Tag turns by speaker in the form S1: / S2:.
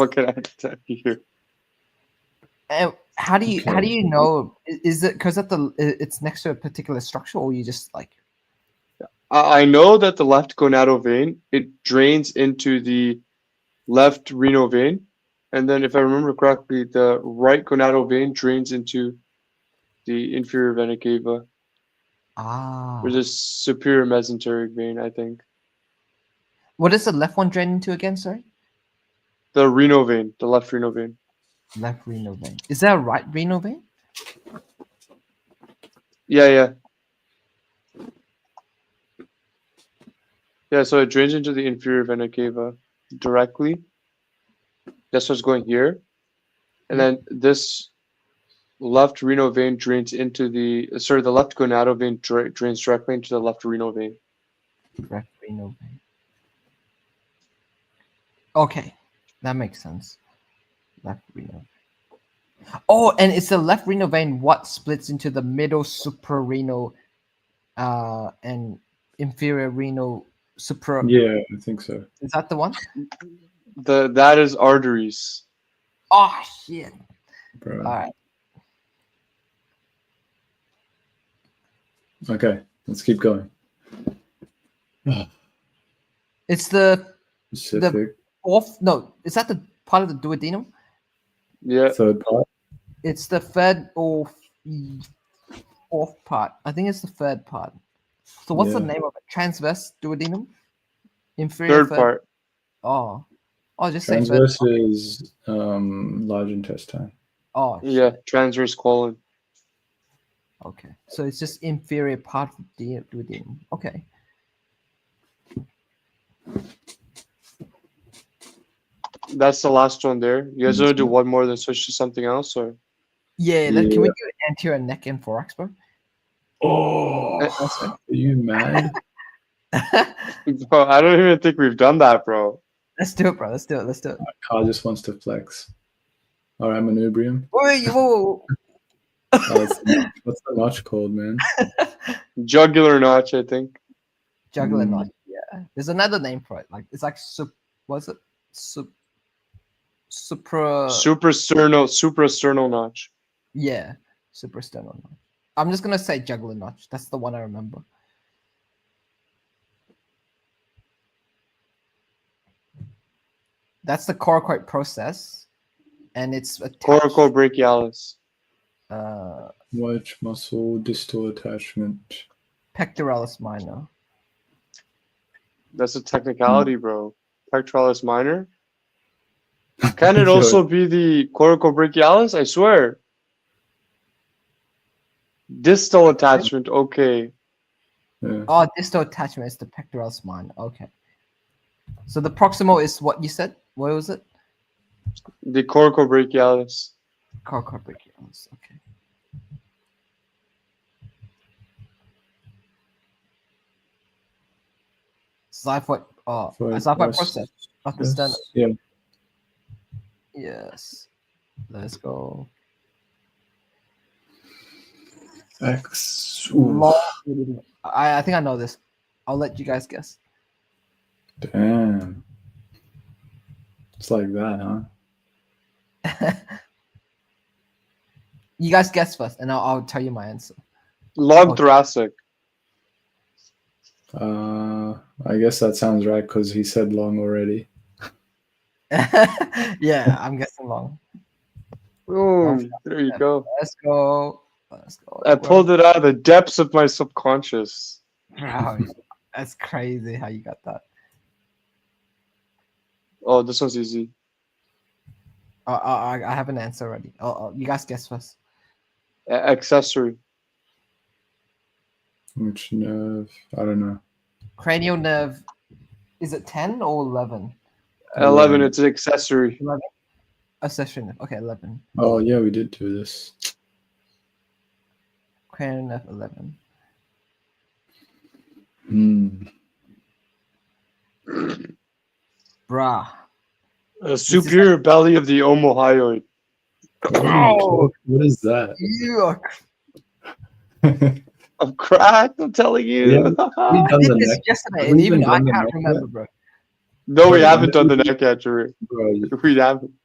S1: What can I tell you?
S2: And how do you how
S3: Okay.
S2: do you know? i- Is it because at the i- it's next to a particular structure, or you just like
S1: I I know that the left gonadal vein it drains into the left renal vein, and then if I remember correctly, the right gonadal vein drains into the inferior vena cava
S2: ah?
S1: or the superior mesenteric vein. I think
S2: What is the left one drain into again? Sorry,
S1: the renal vein, the left renal vein.
S2: left renal vein. Is there a right renal vein?
S1: Yeah, yeah. Yeah, so it drains into the inferior vena cava directly. That's what's going here. And then this left renal vein drains into the, sorry, the left gonadal vein dra- drains directly into the left renal vein.
S2: Left renal vein. Okay, that makes sense. Left renal. vein. Oh, and it's the left renal vein what splits into the middle suprarenal, uh, and inferior renal supra.
S3: Yeah, I think so.
S2: Is that the one?
S1: The that is arteries.
S2: Oh shit!
S3: Bro.
S2: All right,
S3: Okay, let's keep going.
S2: it's the
S3: Pacific,
S2: off. No, is that the part of the duodenum? uh,
S1: Yeah,
S3: third part.
S2: It's the third or f- fourth part. I think it's the third part. So what's the
S3: Yeah.
S2: name of it? Transverse duodenum? Inferior
S1: third part.
S2: Oh. Oh, just say third.
S3: Transverse is um, large intestine.
S2: Oh,
S1: Yeah, transverse colon.
S2: okay. So it's just inferior part of the duodenum. Okay.
S1: That's the last one there. You guys want to do one more, then switch to something else, or
S2: Yeah, let- can we do anterior neck and thorax, bro?
S3: Oh,
S2: That's
S3: are you mad?
S1: bro? I don't even think we've done that, bro.
S2: Let's do it, bro. Let's do it. Let's do it.
S3: Car just wants to flex. All right, manubrium.
S2: Wait, whoa, whoa,
S3: Oh, it's- what's the notch called, man?
S1: Jugular notch, I think.
S2: juggler
S3: Mm.
S2: knife. Yeah, there's another name for it. Like it's like sup. Was it sup? Supra.
S1: Suprasternal, suprasternal notch.
S2: yeah, super sternal knife. I'm just gonna say juggler notch. That's the one I remember. That's the coracoid process, and it's attached.
S1: Coracobrachialis.
S2: Uh,
S3: Watch muscle distal attachment.
S2: pectoralis minor.
S1: That's a technicality, bro. Pectoralis minor. Can it also be the coracobrachialis? I swear. Distal attachment. Okay.
S3: Yeah.
S2: Oh, distal attachment is the pectoralis minor. Okay. So the proximal is what you said. What was it?
S1: The coracobrachialis.
S2: Coracoid brachialis. Okay. Xiphoid, oh,
S3: For
S2: a xiphoid
S3: us-
S2: process. Not the
S3: yes,
S2: standard.
S3: Yeah.
S2: Yes. Let's go.
S3: X.
S2: Long- I, I think I know this. I'll let you guys guess.
S3: Damn. It's like that, huh?
S2: You guys guess first, and I'll, I'll tell you my answer.
S1: Long
S2: Okay.
S1: thoracic.
S3: Uh, I guess that sounds right because he said long already.
S2: yeah, I'm guessing long.
S1: Boom. There you go.
S2: Let's go. Let's go.
S1: I pulled it out of the depths of my subconscious.
S2: Wow, That's crazy how you got that.
S1: Oh, this one's easy.
S2: Uh, I, I- I have an answer already. Oh, oh, you guys guess first.
S1: A- accessory.
S3: Which nerve? I don't know.
S2: Cranial nerve, is it 10 or 11?
S1: 11.
S3: Mm.
S1: It's an accessory.
S2: Accessory nerve. Okay, 11.
S3: Oh yeah, we did do this.
S2: Cranial nerve, 11.
S3: Hmm.
S2: Bruh.
S1: A superior belly of the omohyoid.
S2: Oh.
S3: What is that?
S2: You are cr-
S3: we
S1: I'm cracked. I'm telling you.
S3: done
S2: I did
S3: the
S2: this
S3: neck.
S2: yesterday,
S3: Have
S2: and
S3: we
S2: even
S3: even
S2: I
S3: done the
S2: can't
S3: neck yet?
S2: remember, bro.
S1: No, we
S3: Wait,
S1: haven't
S3: I'm-
S1: done the neck catcher.
S3: Bro,
S1: We haven't.